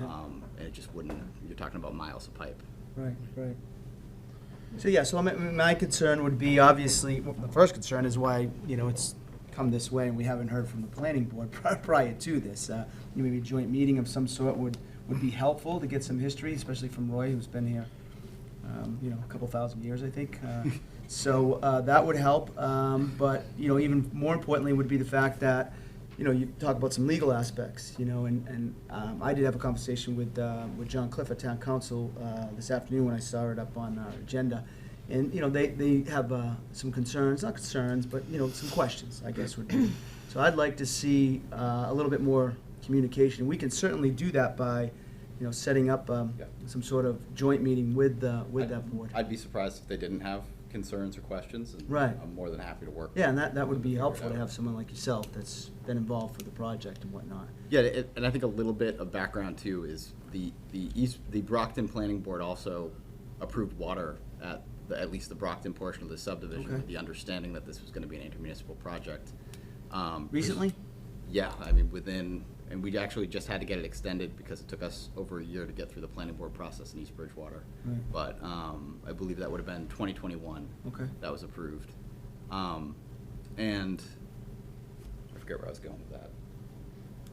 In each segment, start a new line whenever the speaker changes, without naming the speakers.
Um, and it just wouldn't, you're talking about miles of pipe.
Right, right. So, yeah, so my, my concern would be, obviously, well, the first concern is why, you know, it's come this way and we haven't heard from the planning board pri- prior to this. Uh, Maybe a joint meeting of some sort would, would be helpful to get some history, especially from Roy, who's been here, um, you know, a couple thousand years, I think. Uh, So, uh, that would help, um, but, you know, even more importantly would be the fact that, you know, you talk about some legal aspects, you know, and, and um, I did have a conversation with, uh, with John Cliff at Town Council uh, this afternoon when I saw it up on our agenda. And, you know, they, they have uh, some concerns, not concerns, but, you know, some questions, I guess would be. So I'd like to see uh, a little bit more communication. We can certainly do that by, you know, setting up um,
Yeah.
some sort of joint meeting with, the with
I'd-
that board.
I'd be surprised if they didn't have concerns or questions, and
Right.
I'm more than happy to work.
Yeah, and that, that would be
Figure it
helpful to
out.
have someone like yourself that's been involved with the project and whatnot.
Yeah, it- and I think a little bit of background too is the, the East, the Brockton Planning Board also approved water at, the- at least the Brockton portion of the subdivision,
Okay.
with the understanding that this was gonna be an intermunicipal project. Um,
Recently?
Yeah, I mean, within, and we actually just had to get it extended because it took us over a year to get through the planning board process in East Bridgewater.
Right.
But um, I believe that would have been 2021.
Okay.
That was approved. Um, And I forget where I was going with that.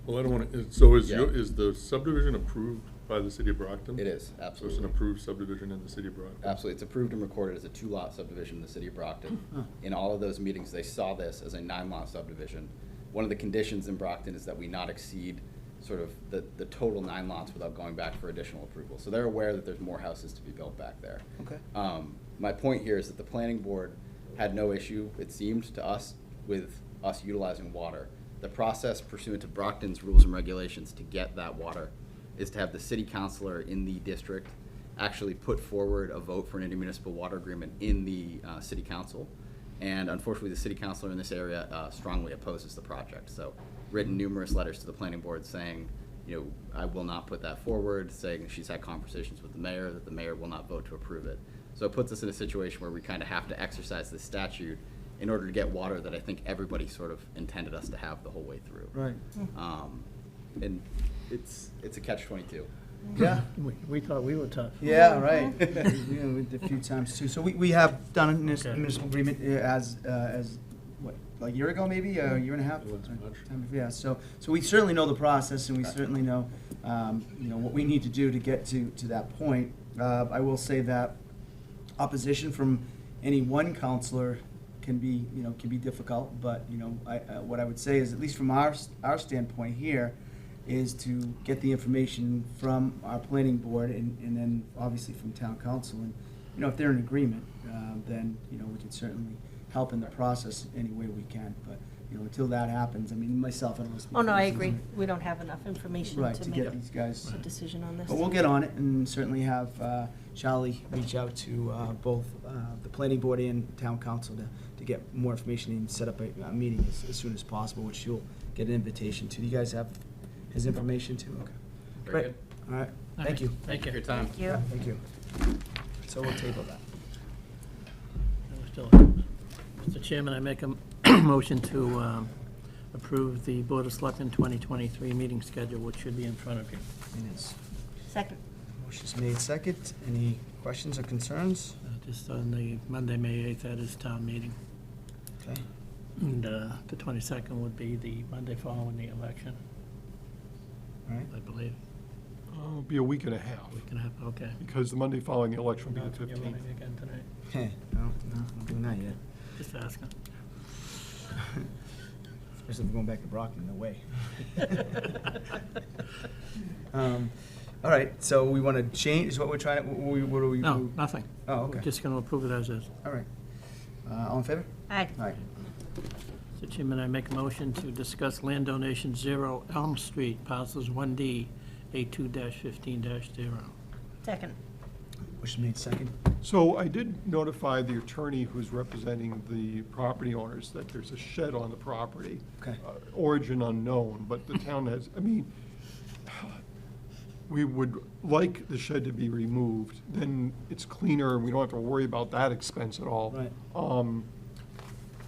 Well, I don't want to, so is your,
Yeah.
is the subdivision approved by the city of Brockton?
It is,
So it's an
absolutely.
approved subdivision in the city of Brockton?
Absolutely. It's approved and recorded as a two-lot subdivision in the city of Brockton.
Huh.
In all of those meetings, they saw this as a nine-lot subdivision. One of the conditions in Brockton is that we not exceed sort of the, the total nine lots without going back for additional approval. So they're aware that there's more houses to be built back there.
Okay.
Um, my point here is that the planning board had no issue, it seemed to us, with us utilizing water. The process pursuant to Brockton's rules and regulations to get that water is to have the city councilor in the district actually put forward a vote for an intermunicipal water agreement in the, uh, city council. And unfortunately, the city councilor in this area uh, strongly opposes the project. So written numerous letters to the planning board saying, you know, I will not put that forward, saying she's had conversations with the mayor, that the mayor will not vote to approve it. So it puts us in a situation where we kind of have to exercise this statute in order to get water that I think everybody sort of intended us to have the whole way through.
Right.
Um, And it's, it's a catch twenty-two.
Mm-hmm.
Yeah.
We, we thought we were tough.
Yeah, right. You know, with A few times too. So we, we have done a munis- municipal agreement uh, as, uh, as, what, like a year ago maybe, a year and a half?
It was
Uh,
March.
time- Yeah, so, so we certainly know the process and we certainly know, um, you know, what we need to do to get to, to that point. Uh, I will say that opposition from any one counselor can be, you know, can be difficult, but, you know, I, uh, what I would say is, at least from our, s- our standpoint here, is to get the information from our planning board and, and then obviously from town council. And, you know, if they're in agreement, um, then, you know, we can certainly help in the process any way we can. But, you know, until that happens, I mean, myself, I don't want to speak.
Oh, no,
for
I
the
agree.
season.
We don't have enough information
Right,
to
to
make
get these guys.
a decision on this.
But we'll get on it and certainly have uh, Charlie reach out to uh, both uh, the planning board and town council to, to get more information and set up a, a meeting as, as soon as possible, which you'll get an invitation to. You guys have his information too? Okay.
Very
Great.
good.
All right, thank you.
Thank
For your
you.
time.
Thank you.
Thank you. So we'll table that.
That was still- Mr. Chairman, I make a m- motion to um, approve the Board of Selectmen 2023 meeting schedule, which should be in front of you.
It is.
Second,
Motion's made second. Any questions or concerns?
Uh, Just on the Monday, May 8th, that is town meeting.
Okay.
And uh, the 22nd would be the Monday following the election,
All right.
I believe.
Oh, It'll be a week and a half,
We can have, okay.
because the Monday following the election will
Not
be the
from your
fifteenth.
meeting again tonight.
Heh, No, no, I'm doing that yet.
Just asking.
Especially if we're going back to Brockton, no way. Um, All right, so we want to change, is what we're trying, what we, what do we?
No, nothing.
Oh,
We're
okay,
just going to approve it as is.
all right. Uh, All in favor?
aye.
All right,
Mr. Chairman, I make a motion to discuss land donation zero Elm Street, parcels one D, A two fifteen zero.
Second,
motion made second.
So I did notify the attorney who's representing the property owners that there's a shed on the property.
Okay.
Uh, Origin unknown, but the town has, I mean, we would like the shed to be removed, then it's cleaner, and we don't have to worry about that expense at all.
Right.
Um,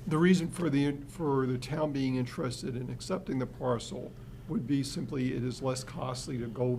The reason for the, for the town being interested in accepting the parcel would be simply it is less costly to go